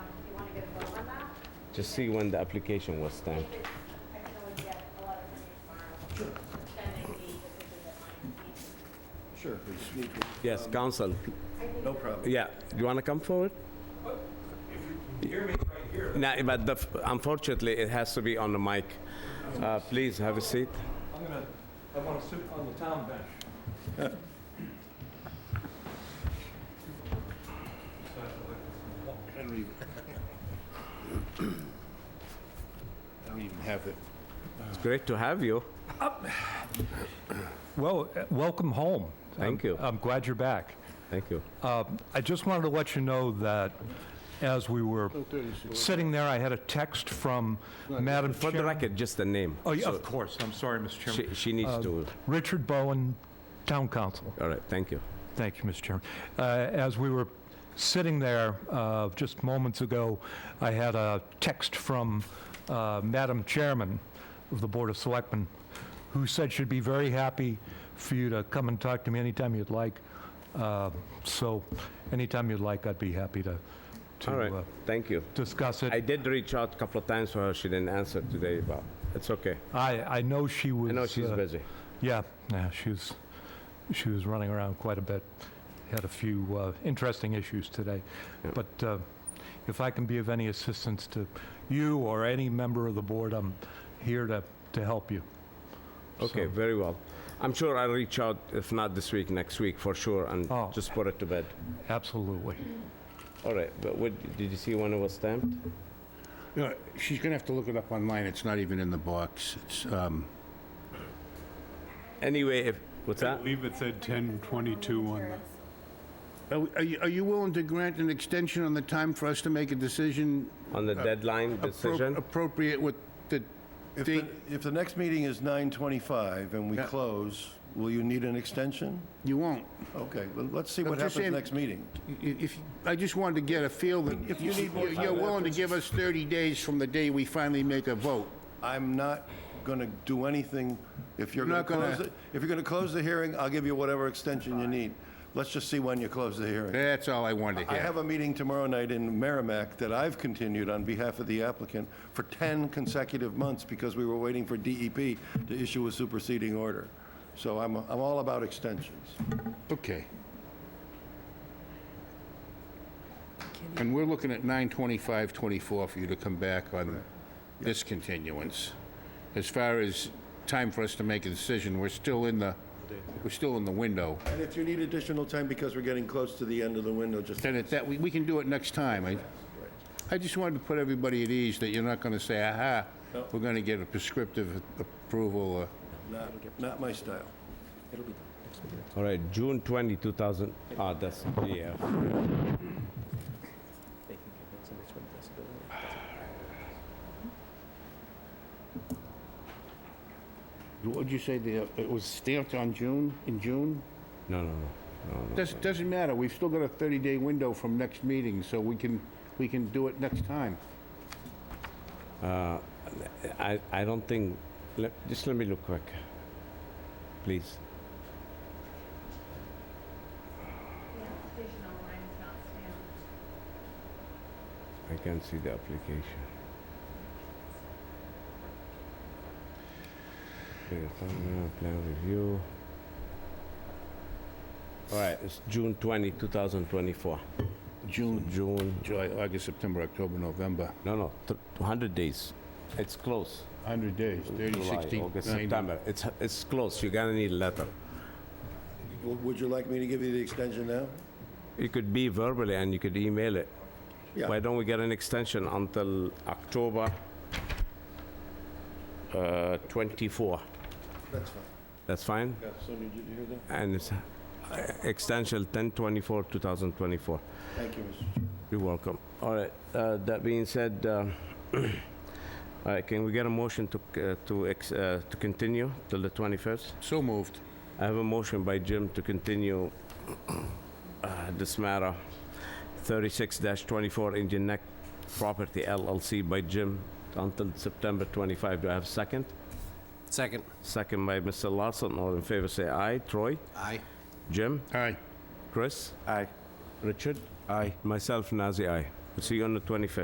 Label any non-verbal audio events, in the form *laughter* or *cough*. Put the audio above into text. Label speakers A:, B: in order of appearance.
A: to see when the application was stamped.
B: I can always get a letter from you tomorrow. Then maybe the picture that might be.
C: Sure, please speak.
A: Yes, council.
C: No problem.
A: Yeah, you want to come forward?
D: Hear me right here.
A: No, but the, unfortunately, it has to be on the mic. Uh, please have a seat.
D: I'm gonna, I wanna sit on the town bench.
C: I don't even- I don't even have it.
A: It's great to have you.
D: Well, uh, welcome home.
A: Thank you.
D: I'm glad you're back.
A: Thank you.
D: Uh, I just wanted to let you know that as we were sitting there, I had a text from Madam
A: For the
D: Chair.
A: record, just the name.
D: Oh, yeah, of course. Uh, I'm sorry, Mr. Chairman.
A: She, she needs to,
D: Richard Bowen, Town Council.
A: all right, thank you.
D: Thank you, Mr. Chairman. Uh, As we were sitting there uh, just moments ago, I had a text from uh, Madam Chairman of the Board of Selectmen, who said she'd be very happy for you to come and talk to me anytime you'd like. Uh, So anytime you'd like, I'd be happy to,
A: All right,
D: to uh,
A: thank you.
D: discuss it.
A: I did reach out a couple of times for her, she didn't answer today, but it's okay.
D: I, I know she was.
A: I know she's
D: uh,
A: busy.
D: Yeah, yeah, she was, she was running around quite a bit. Had a few uh, interesting issues today.
A: Yeah.
D: But uh, if I can be of any assistance to you or any member of the board, I'm here to, to help you.
A: Okay,
D: So-
A: very well. I'm sure I'll reach out, if not this week, next week for sure, and
D: Oh.
A: just put it to bed.
D: Absolutely.
A: All right, but what, did you see when it was stamped?
C: You know, She's gonna have to look it up online, it's not even in the box, it's, um,
A: Anyway, if, what's
E: I
A: that?
E: believe it said 1022 on the...
C: are we- are you, are you willing to grant an extension on the time for us to make a decision?
A: On
D: Uh,
A: the deadline
C: appro-
A: decision?
C: Appropriate with the
F: If
C: date?
F: the, if the next meeting is 9:25 and we
C: Yeah.
F: close, will you need an extension?
C: You won't.
F: Okay, well, let's see
C: I'm
F: what
C: just
F: happens
C: saying-
F: next meeting.
C: I- If, I just wanted to get a feel that
F: If you need more
C: you're-
F: time
C: You're willing to
F: afterwards.
C: give us 30 days from the day we finally make a vote.
F: I'm not gonna do anything, if
C: You're
F: you're gonna
C: not gonna-
F: close, it- if you're gonna close the hearing, I'll give you whatever extension you need. Let's just see when you close the hearing.
C: That's all I wanted to
F: I
C: hear.
F: have a meeting tomorrow night in Merrimack that I've continued on behalf of the applicant for 10 consecutive months because we were waiting for DEP to issue a superseding order. So I'm, I'm all about extensions.
C: Okay. And we're looking at 9/25/24 for you to come back on this continuance. As far as time for us to make a decision, we're still in the, we're still in the window.
F: And if you need additional time because we're getting close to the end of the window, just
C: Then at that, we, we can do it next time. I, I just wanted to put everybody at ease that you're not gonna say, aha, we're gonna get a prescriptive approval or
F: not, not my style.
A: All right, June 20, 2000, ah, that's, yeah.
G: they can convince them it's with disability.
C: What'd you say, the, it was stamped on June, in June?
A: No, no, no, no, no.
C: Doesn't, doesn't matter, we've still got a 30-day window from next meeting, so we can, we can do it next time.
A: I, I don't think, let, just let me look quick, please.
B: The application online is not stamped.
A: I can't see the application. Okay, thumbnail, Plan review. All right, it's June 20, 2024.
C: June,
A: June,
C: July, August, September, October, November,
A: no, no, th- 100 days. It's close.
C: 100 days, 30,
A: July,
C: 60,
A: August,
C: 90.
A: September. It's, it's close. You're gonna need a letter.
F: W- Would you like me to give you the extension now?
A: It could be verbally and you could email it.
F: Yeah.
A: Why don't we get an extension until October uh, 24?
F: That's fine.
A: That's fine?
F: Yeah, so did you hear that?
A: And it's uh, extension 1024, 2024.
F: Thank you, Mr. Chair.
A: You're welcome. All right, uh, that being said, uh, *clears throat* all right, can we get a motion to, c- uh, to, ex- uh, to continue till the 21st?
C: So moved.
A: I have a motion by Jim to continue *clears throat* uh, this matter, 36-24 Indian Neck Property LLC by Jim until September 25. Do I have a second?
H: Second.
A: Second by Mr. Larson. All in favor, say aye. Troy?
H: Aye.
A: Jim?
C: Aye.
A: Chris?
F: Aye.
A: Richard? Aye. Myself, Nazir, aye. We'll see you on the 25th.